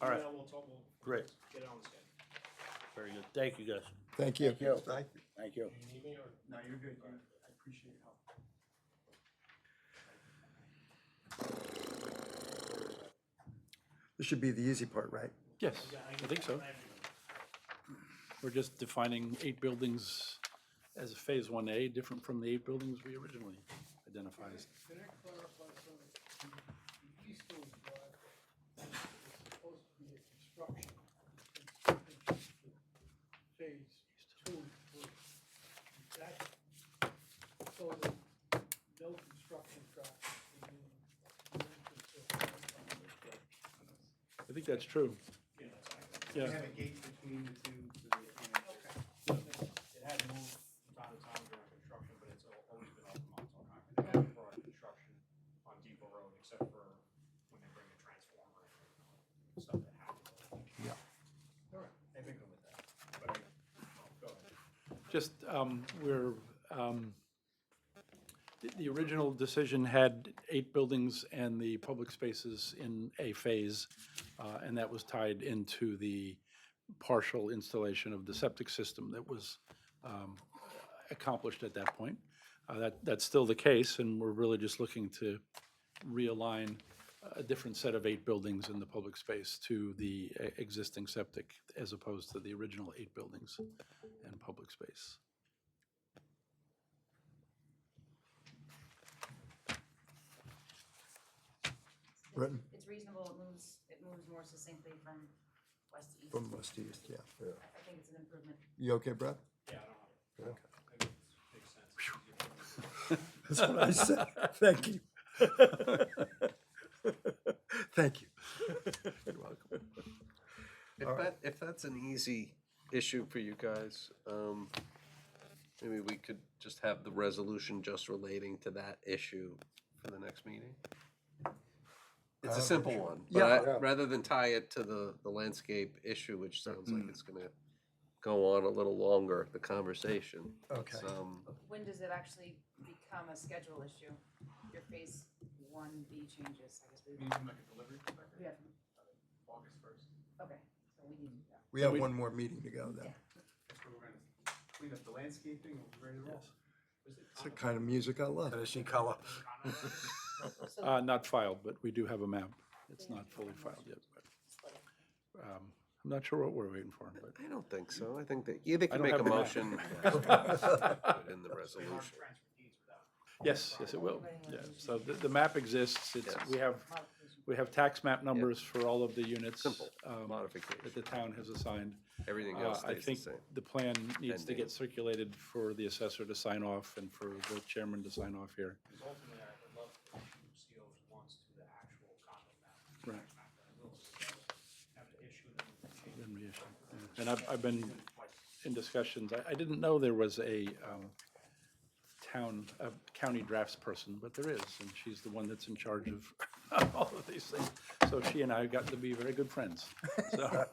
All right. Yeah, we'll talk, we'll Great. get it on the schedule. Very good. Thank you, guys. Thank you. Thank you. Thank you. Do you need me or? No, you're good. You- I appreciate your help. This should be the easy part, right? Yes, Yeah, I think so. have your number. We're just defining eight buildings as a Phase 1A, different from the eight buildings we originally identified. as- Can I clarify something? The East Hills Drive is supposed to be a construction. construction Phase two, and three. That, so that no construction traffic will be in the entrance of the drive. I think that's true. Yeah, that's all right. We Yeah, have a gate between the two. so that, you know, It had moved from time to time during construction, but it's al- always been open on Montauk They haven't brought construction on Depot Road except for when they bring a transformer and stuff that happens. Yeah. All right, I think I'm with that. But I, go ahead. just, um, we're, um, the- the original decision had eight buildings and the public spaces in a phase, uh, and that was tied into the partial installation of the septic system that was um, accomplished at that point. Uh, That, that's still the case, and we're really just looking to realign a different set of eight buildings in the public space to the e- existing septic as opposed to the original eight buildings and public space. Britton? It's reasonable, it moves, it moves more succinctly from west to east. From west to east, yeah. I think it's an improvement. You okay, Brad? Yeah, I don't know. Okay. I think it makes sense. It's easier for me. That's what I said. Thank you. Thank you. You're welcome. If that, if that's an easy issue for you guys, um, maybe we could just have the resolution just relating to that issue for the next meeting? Uh, It's a simple one, but Yeah. I- rather than tie it to the, the landscape issue, which sounds Mm. like it's gonna go on a little longer, the conversation. Okay. let's, um, When does it actually become a schedule issue? Your phase one B changes, I guess we, We Mm. need to make a delivery we have, August first. okay, so we need to. We have one more meeting to go then. That's where we're gonna clean up the landscaping. We'll be ready to roll. Was it It's the kind of music I love. Finishing color. So Uh, Not filed, but we do have a map. It's not fully filed yet, but split it. um, I'm not sure what we're waiting for, but I don't think so, I think that, yeah, they I can don't make a have the map. motion. In the They aren't resolution. transfer deeds without. yes, yes, it will. Yeah, so the, the map exists. It's, we have, Modification. we have tax map numbers for all of the units. Simple um, That the Modification, town has assigned. everything Uh, else I stays the think same. the plan needs to Pending. get circulated for the assessor to sign off and for the chairman to sign off here. Because ultimately, I would love to issue COs once to the actual condo map. Right. Map that I will, Have to issue them. Then we issue, yeah. And I've, I've been in discussions, I, I didn't know there was a, um, town, a county drafts person, but there is, and she's the one that's in charge of all of these things. So she and I have gotten to be very good friends, so.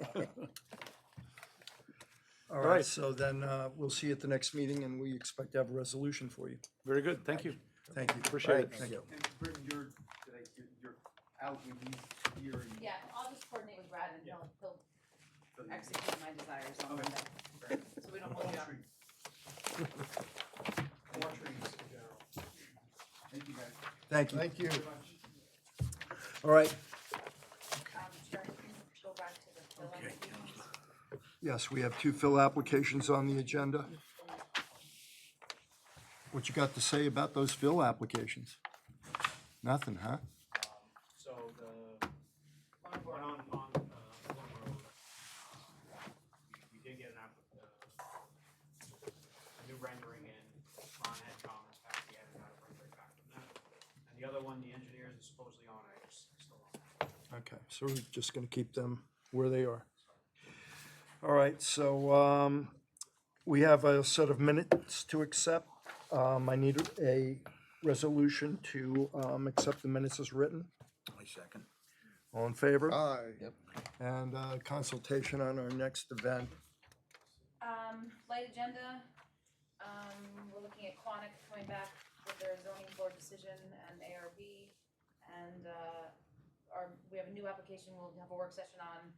All right, so then uh, we'll see you at the next meeting and we expect to have a resolution for you. Very good, thank you. Thank you. Appreciate it. Thank you. And Britton, you're, did I- you're- you're out with these here. and- Yeah, I'll just coordinate with Brad and he'll, he'll so that- execute my desires on Okay. Monday, so we don't hold it up. Poultry. Poultry in general. Thank you, guys. Thank you. you. Um, All right, Um, Chair, can you go back to the fill applications? yes, we have two fill applications on the agenda. What you got to say about those fill applications? Nothing, huh? Um, So the, one on, on, uh, Long Road, uh, we, we did get an app, uh, a new rendering in, Ron had comments back, he hadn't got a rendering back from that. And the other one, the engineers is supposedly on, I just, still on. Okay, so we're just gonna keep them where they are. All right, so, um, we have a set of minutes to accept. Um, I need a resolution to, um, accept the minutes as written. My second. All in favor? Aye. And, uh, consultation on our next event. Um, light agenda, um, we're looking at Quonic coming back with their zoning board decision and ARB. And, uh, our, we have a new application we'll have a work session on